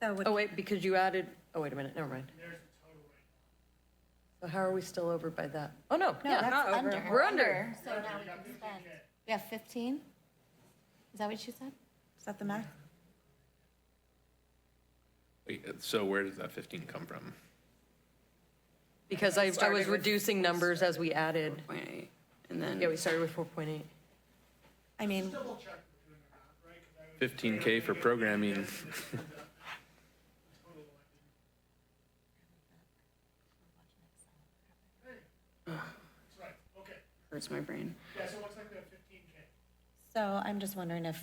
So with Oh, wait, because you added, oh, wait a minute, never mind. So how are we still over by that? Oh, no, No, yeah, that's not over. under. We're under. So now we can spend, we have 15? Is that what you said? Is that the max? Wait, uh, So where does that 15 come from? Because I, I Started was with- reducing numbers as we added. Point eight, and then. Yeah, we started with 4.8. I mean, 15K for programming. Hurts my brain. so I'm just wondering if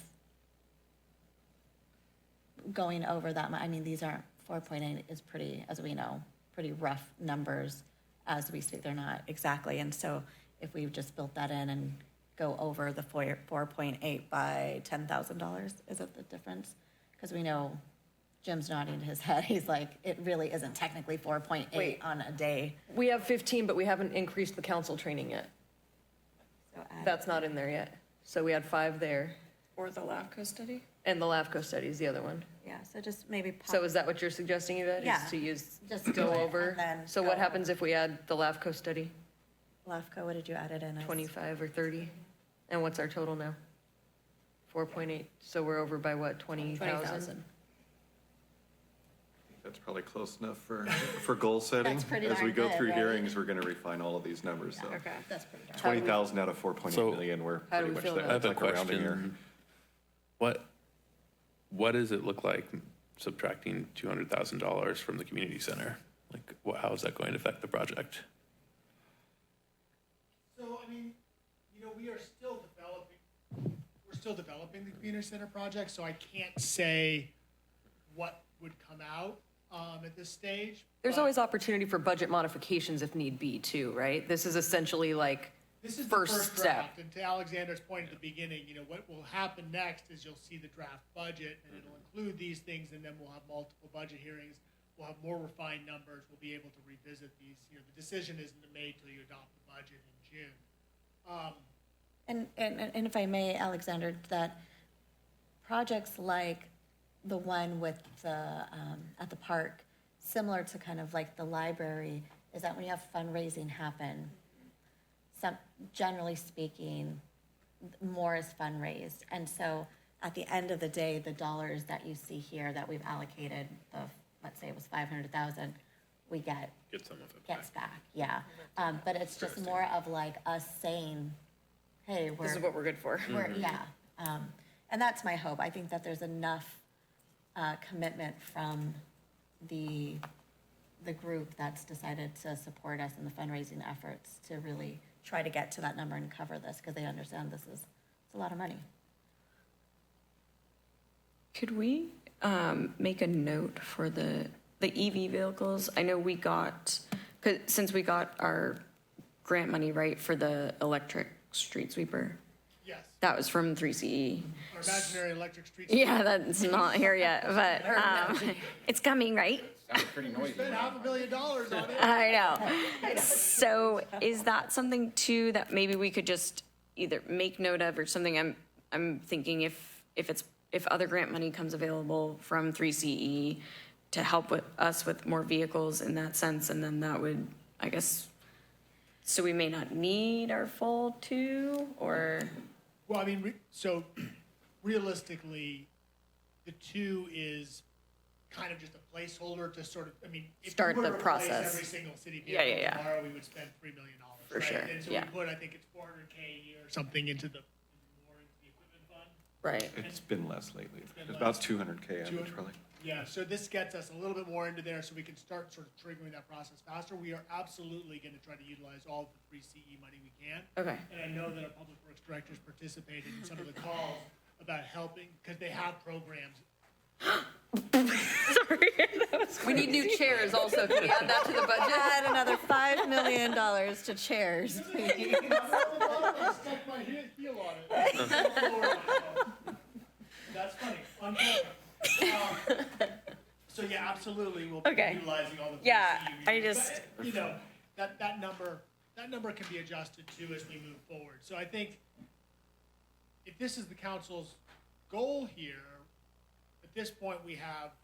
Going over that, mu- I mean, these aren't, 4.8 is pretty, as we know, pretty rough numbers as we speak. They're not exactly, and so if we just built that in and go over the four, four point eight by ten thousand dollars, is it the difference? Because we know Jim's nodding his head, he's like, it really isn't technically four point eight Wait. on a day. We have 15, but we haven't increased the council training yet. So add- That's not in there yet. So we had five there, Or the LAFCO study? and the LAFCO study is the other one. Yeah, so just maybe. pop- So is that what you're suggesting, Yvette, Yeah. is to use, Just do go it over? and then So go what over. happens if we add the LAFCO study, LAFCO, what did you add it in? as? 25 or 30? And what's our total now? 4.8, so we're over by what, 20,000? That's probably close enough for, for goal setting. That's pretty As we darn go good, through right? hearings, we're gonna refine all of these numbers, so. Okay. That's pretty dark. Twenty thousand out of four point So- eight million, we're How do pretty we much feel there. about I have a It's like rounding error. question. What, what does it look like subtracting two hundred thousand dollars from the community center? Like, wha- how is that going to affect the project? So, I mean, you know, we are still developing, we're still developing the community center project, so I can't say what would come out, um, at this stage. There's but always opportunity for budget modifications if need be too, right? This is essentially like, This is the first first step. draft, and to Alexander's point at the beginning, you know, what will happen next is you'll see the draft budget, and it'll include these things, and then we'll have multiple budget hearings. We'll have more refined numbers, we'll be able to revisit these, you know, the decision isn't made till you adopt the budget in June. Um, And, and, and if I may, Alexander, that projects like the one with the, um, at the park, similar to kind of like the library, is that when you have fundraising happen, some, generally speaking, more is fundraised. And so at the end of the day, the dollars that you see here that we've allocated, the, let's say it was five hundred thousand, we get Get some of it gets back, yeah. Um, but it's just more of like us saying, hey, we're. This is what we're good for. Mm-hmm. We're, yeah, um, and that's my hope. I think that there's enough, uh, commitment from the, the group that's decided to support us in the fundraising efforts to really try to get to that number and cover this, because they understand this is, it's a lot of money. Could we um, make a note for the, the EV vehicles? I know we got, 'cause- since we got our grant money, right, for the electric street sweeper, Yes, that was from E. 3CE. our imaginary electric streets. Yeah, that's not here yet, but um, it's coming, right? Spent half a million dollars on it. I know. So is that something too that maybe we could just either make note of or something? I'm, I'm thinking if, if it's, if other grant money comes available from 3CE to help with us with more vehicles in that sense, and then that would, I guess, so we may not need our full two or, Well, I mean, re- so realistically, the two is kind of just a placeholder to sort of, I mean, if we Start were the to replace process. every single city Yeah, yeah, vehicle yeah. tomorrow, we would spend three million dollars. For sure, And so yeah. we put, I think it's four hundred K a year or something into the, more into the equipment fund. right? It's been less lately, It's about two hundred K average 200. probably. Yeah, so this gets us a little bit more into there, so we can start sort of triggering that process faster. We are absolutely gonna try to utilize all the free CE money we can. Okay. And I know that our public works directors participated in some of the calls about helping, because they have programs. We need new chairs also, can we add that to the budget? Add another five million dollars to chairs. I stuck my he- heel on it. That's funny, on camera. Um, So yeah, absolutely, we'll be Okay. utilizing all the. free Yeah, CE we I get. But, just- You know, that, that number, that number can be adjusted too as we move forward. So I think if this is the council's goal here, at this point, we have